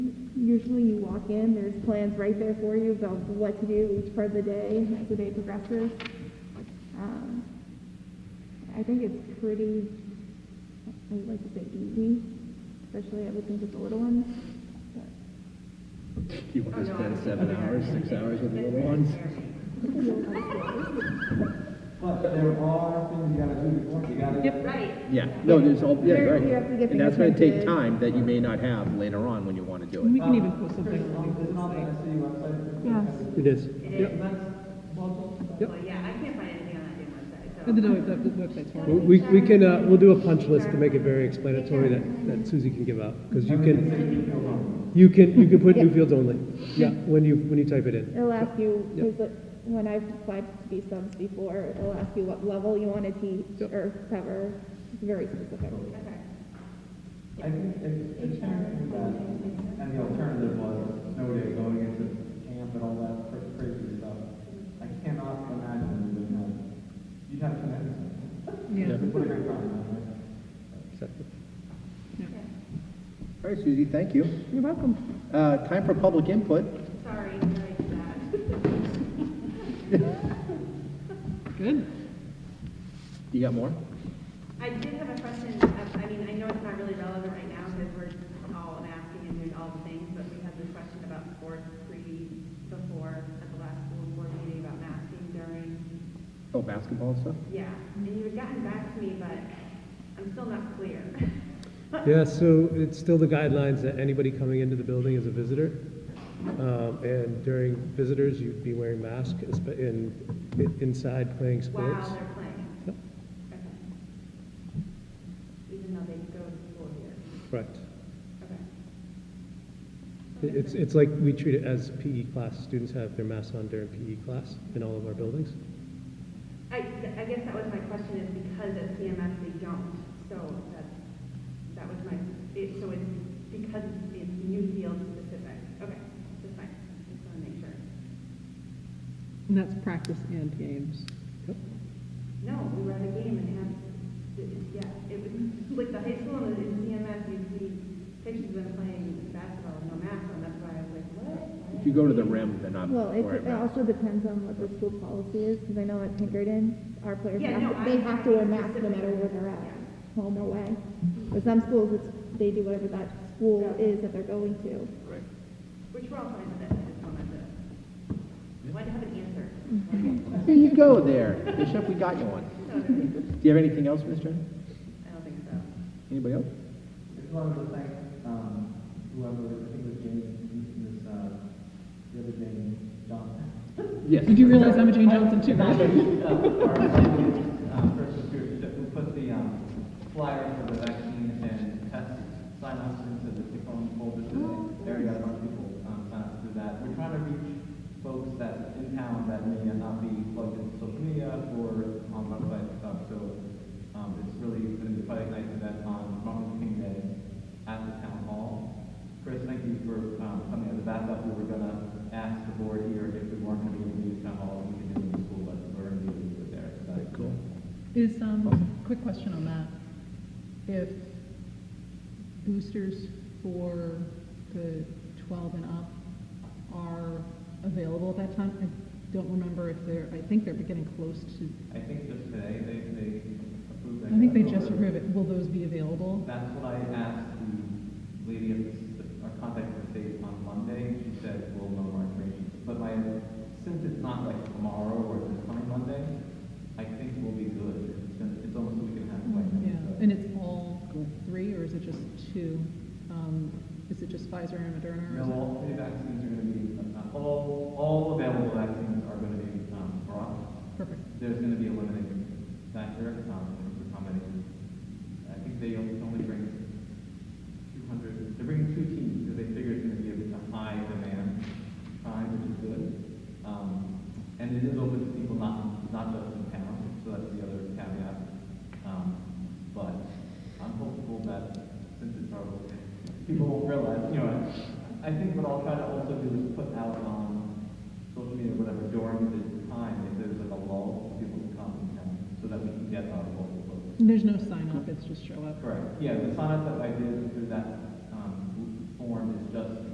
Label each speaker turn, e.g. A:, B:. A: usually you walk in, there's plans right there for you about what to do each part of the day as the day progresses. Um, I think it's pretty, I would like to say easy, especially I would think with the little ones. But
B: You want
A: Oh,
B: to spend seven hours, six hours with the little ones?
C: But there are things you gotta do before, you gotta.
D: Right.
B: Yeah, no, there's all, yeah,
A: There-
B: right.
A: you have to get
B: And that's gonna
A: things
B: take
A: printed.
B: time that you may not have later on when you want to do
E: We
B: it.
E: can even put something
C: It's on
E: on
C: the
E: the website.
C: Tennessee website.
F: Yes, it is.
D: It
F: Yep.
D: is.
F: Yep.
D: Well, yeah, I can't find anything on that damn website, so.
E: And the the- the website's fine.
F: Well, We, we can, uh, we'll do a punch list to make it very explanatory that, that Susie can give out, because you can, you can, you can put new fields only. Yeah, when you, when you type it in.
A: it'll ask you,
F: Yep.
A: because when I've applied to be subs before, it'll ask you what level you want to teach
F: Yep.
A: or cover, It's very specific.
C: I think it's, it's changing that, and the alternative was snow day going into camp and all that cra- crazy stuff. I cannot imagine you would have, you'd have to manage it.
E: Yeah.
C: What a great time,
E: Mm-hmm.
F: Exactly.
B: All right, Susie, thank you.
A: You're welcome.
B: Uh, time for public input.
D: Sorry, sorry for that.
E: Good.
B: You got more?
D: I did have a question, um, I I mean, I know it's not really relevant right now because we're all asking and doing all the things, but we had this question about sports pre, before, at the last school board meeting about masking during.
B: Oh, basketball and stuff?
D: Yeah, and you had gotten back to me, but I'm still not clear.
F: Yeah, so it's still the guidelines that anybody coming into the building is a visitor. Um, and during visitors, you'd be wearing masks espe- in, in- inside playing
D: While
F: sports.
D: they're playing.
F: Yep.
D: Okay. Even though they go to school here.
F: Correct.
D: Okay.
F: It- It's, it's like we treat it as PE class. Students have their masks on during PE class in all of our buildings.
D: I, I guess that was my question, is because at CMS they don't, so that, that was my, it, so it's because it's new field specific, okay, that's fine, just wanna make sure.
E: And that's practice and games.
F: Yep.
D: No, we were at a game and had, it- it- yeah, it was, like, the high school in in CMS, you see pictures of them playing basketball with no masks on, that's why I was like, what?
B: If you go to the rim, they're not
A: Well, it,
B: wearing
A: it
B: masks.
A: also depends on what the school policy is, because I know at Pinkerton, our players,
D: Yeah,
A: have
D: no,
A: to- they
D: I-
A: have to wear masks no matter where they're at,
D: Yeah.
A: home or away. But some schools, it's, they do whatever that school
D: Yeah.
A: is that they're going to.
B: Right.
D: Which we're all fine with that, I just wanted to, wanted to have an answer.
B: There you go there. Bishop, we got you one.
D: So, I
B: Do you have anything else, Ms. Jen?
D: don't think so.
B: Anybody else?
C: I just wanted to thank, um, whoever, I think it was James, this, uh, the other James Johnson.
B: Yes.
E: Did you realize I'm a Jane Johnson too, right?
C: Our um, first distributor who put the um, flyer for the vaccine and test sign ups into the phone folder today. There we got a bunch of people um, sign up through that. We're trying to reach folks that in town that may not be plugged into social media or on websites and stuff. So um, it's really been a quite a nice event on Um, Martin Luther King Day at the town hall. Chris, thank you for um, coming as a backup. We were gonna ask the board here if we weren't gonna be able to use town hall, we could do it in the school, but we're gonna be able to do it there. So that's
B: Cool.
E: Is, um, quick question on that. If boosters for the 12 and up are available at that time, I don't remember if they're, I think they're getting close to,
C: I think just today they, they approved. that.
E: I think they just approved it. Will those be available?
C: That's what I asked the lady at the, our contact at the state on Monday. She said, we'll know more information. But my, since it's not like tomorrow or this coming Monday, I think we'll be good. It's been, it's almost a week and a half away.
E: Yeah,
C: so-
E: and it's all three, or is it just two? Um, Is it just Pfizer and Moderna? or
C: No,
E: is it-
C: all three vaccines are gonna be, uh, all, all available vaccines are gonna be, um, brought.
E: Perfect.
C: There's gonna be a limiting factor, um, for how many. I think they only only bring two hundred, they're bringing two teams, because they figure it's gonna be a a high demand time, which is good. Um, and it is open to people not, not just in town, so that's the other caveat. Um, but I'm hopeful that since it's our, people won't realize, you know, I think what I'll try to also do is put out on social media, whatever, during the time, if there's like a lull, people can come and town, so that we can get our local folks.
E: There's no sign up, it's just show up.
C: Correct, yeah, the sign up that I did through that, um, form is just